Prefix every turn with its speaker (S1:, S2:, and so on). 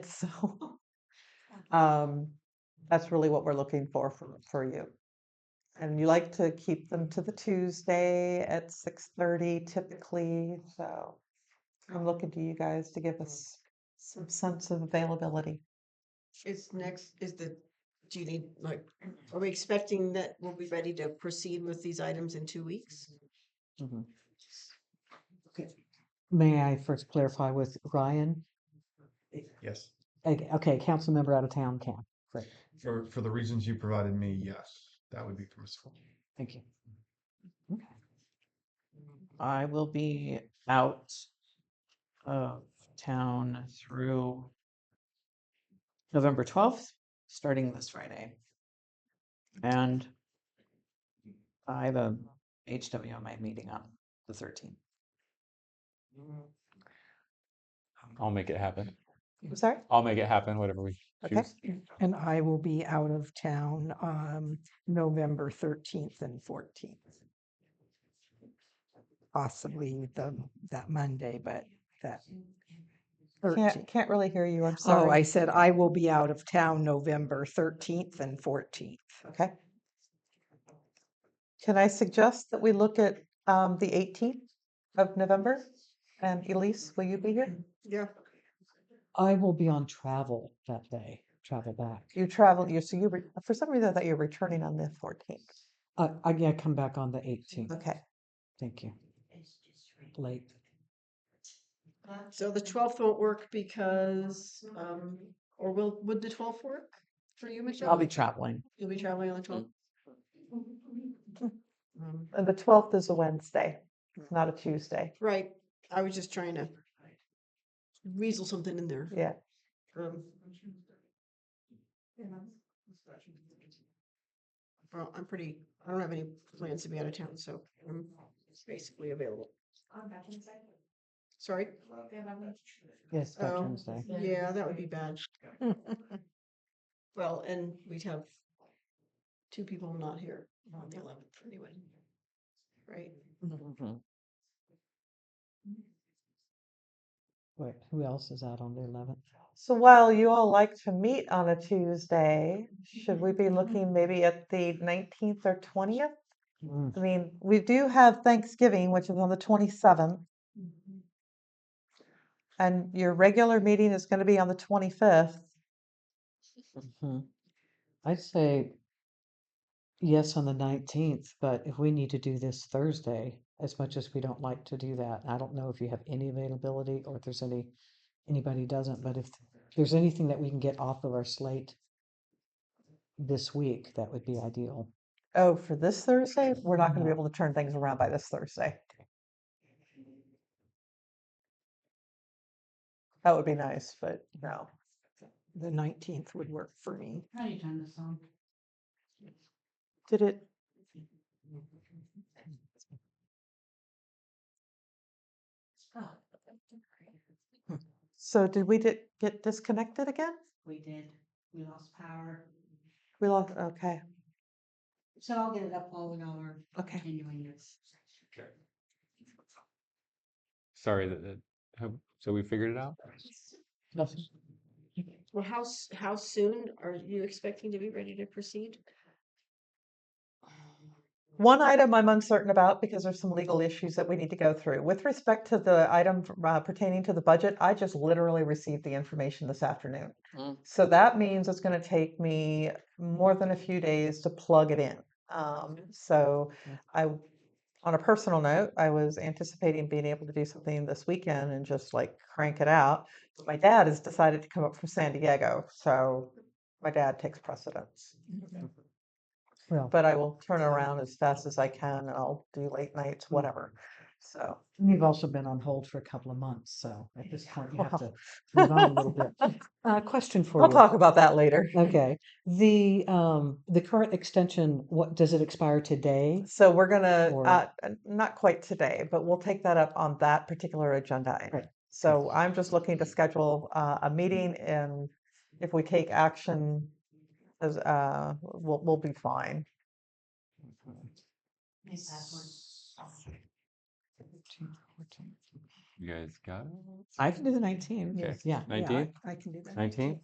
S1: So
S2: Mm-hmm.
S1: um, that's really what we're looking for for, for you. And you like to keep them to the Tuesday at six thirty typically, so I'm looking to you guys to
S2: Mm-hmm.
S1: give us some sense of availability.
S3: Is next, is the, do you need, like, are we expecting that we'll be ready to proceed with these items in two weeks?
S2: May I first clarify with Ryan?
S4: Yes,
S2: Okay, okay, council member out of town can.
S4: for, for the reasons you provided me, yes, that would be permissible.
S2: Thank you.
S5: I will be out of town through November 12th, starting this Friday. And I have a HWMA meeting on the 13th.
S6: I'll make it happen.
S1: I'm sorry?
S6: I'll make it happen, whatever we
S1: Okay.
S6: choose.
S7: And I will be out of town um November thirteenth and fourteenth. Possibly the, that Monday, but that.
S1: Can't,
S7: 13th.
S1: can't really hear you, I'm
S7: Oh, I
S1: sorry.
S7: said I will be out of town November thirteenth and fourteenth.
S1: Okay. Can I suggest that we look at um, the eighteenth of November? And Elise, will you be here?
S3: Yeah.
S2: I will be on travel that day, travel back.
S1: You travel, you, so you, re- for some reason, I thought you were returning on the fourteenth.
S2: Uh, I, yeah, come back on the eighteenth.
S1: Okay,
S2: Thank you. Late.
S3: So the twelfth won't work because, um, or will, would the twelfth work for you, Michelle?
S5: I'll be traveling.
S3: You'll be traveling on the twelfth?
S5: Mm.
S3: Um,
S1: and the twelfth is a Wednesday, it's not a Tuesday,
S3: Right, I was just trying to weasel something in there.
S1: yeah.
S3: Um, Well, I'm pretty, I don't have any plans to be out of town, so I'm basically available. Sorry?
S2: Yes,
S3: Oh,
S2: Veterans Day.
S3: Yeah, that would be bad. Well, and we'd have two people not here on the eleventh anyway. Right?
S2: Mm-hmm. Wait, who else is out on the eleventh?
S1: So while you all like to meet on a Tuesday, should we be looking maybe at the nineteenth or twentieth? I mean, we do have Thanksgiving, which is on the twenty-seventh. And your regular meeting is gonna be on the twenty-fifth.
S2: Mm-hmm. I'd say yes on the nineteenth, but if we need to do this Thursday, as much as we don't like to do that, I don't know if you have any availability or if there's any, anybody doesn't, but if there's anything that we can get off of our slate this week, that would be ideal.
S1: Oh, for this Thursday, we're not gonna be able to turn things around by this Thursday. That would be nice, but no.
S7: The nineteenth would work for me.
S1: Did it?
S8: Oh,
S1: So did we di- get disconnected again?
S8: We did. We lost power.
S1: We lost, okay,
S8: So I'll get it up while we all are
S1: okay.
S8: continuing this.
S6: Sorry that, that, have- so we figured it out?
S2: Nothing.
S3: Well, how, s- how soon are you expecting to be ready to proceed?
S1: One item I'm uncertain about because there's some legal issues that we need to go through. With respect to the item f- uh, pertaining to the budget, I just literally received the information this afternoon.
S5: Mm.
S1: So that means it's going to take me more than a few days to plug it in. Um, so I, w- on a personal note, I was anticipating being able to do something this weekend and just like crank it out. But my dad has decided to come up from San Diego, so my dad takes precedence
S2: Well,
S1: but I will turn around as fast as I can and I'll do late nights, whatever. So,
S2: you've also been on hold for a couple of months, so at this point you have to move on a little bit. Uh, question for you.
S1: I'll talk about that later.
S2: Okay, the, um, the current extension, what, does it expire today?
S1: So we're gonna,
S2: Or-
S1: uh, uh, not quite today, but we'll take that up on that particular agenda item.
S2: Right.
S1: So I'm just looking to schedule, uh, a meeting and if we take action as, uh, we'll, we'll be fine.
S8: My password.
S6: You guys got it?
S9: I can do the 19th.
S6: Okay.
S10: Yeah.
S2: Yeah, I-
S6: Nineteenth,
S2: I can do that.
S6: nineteenth?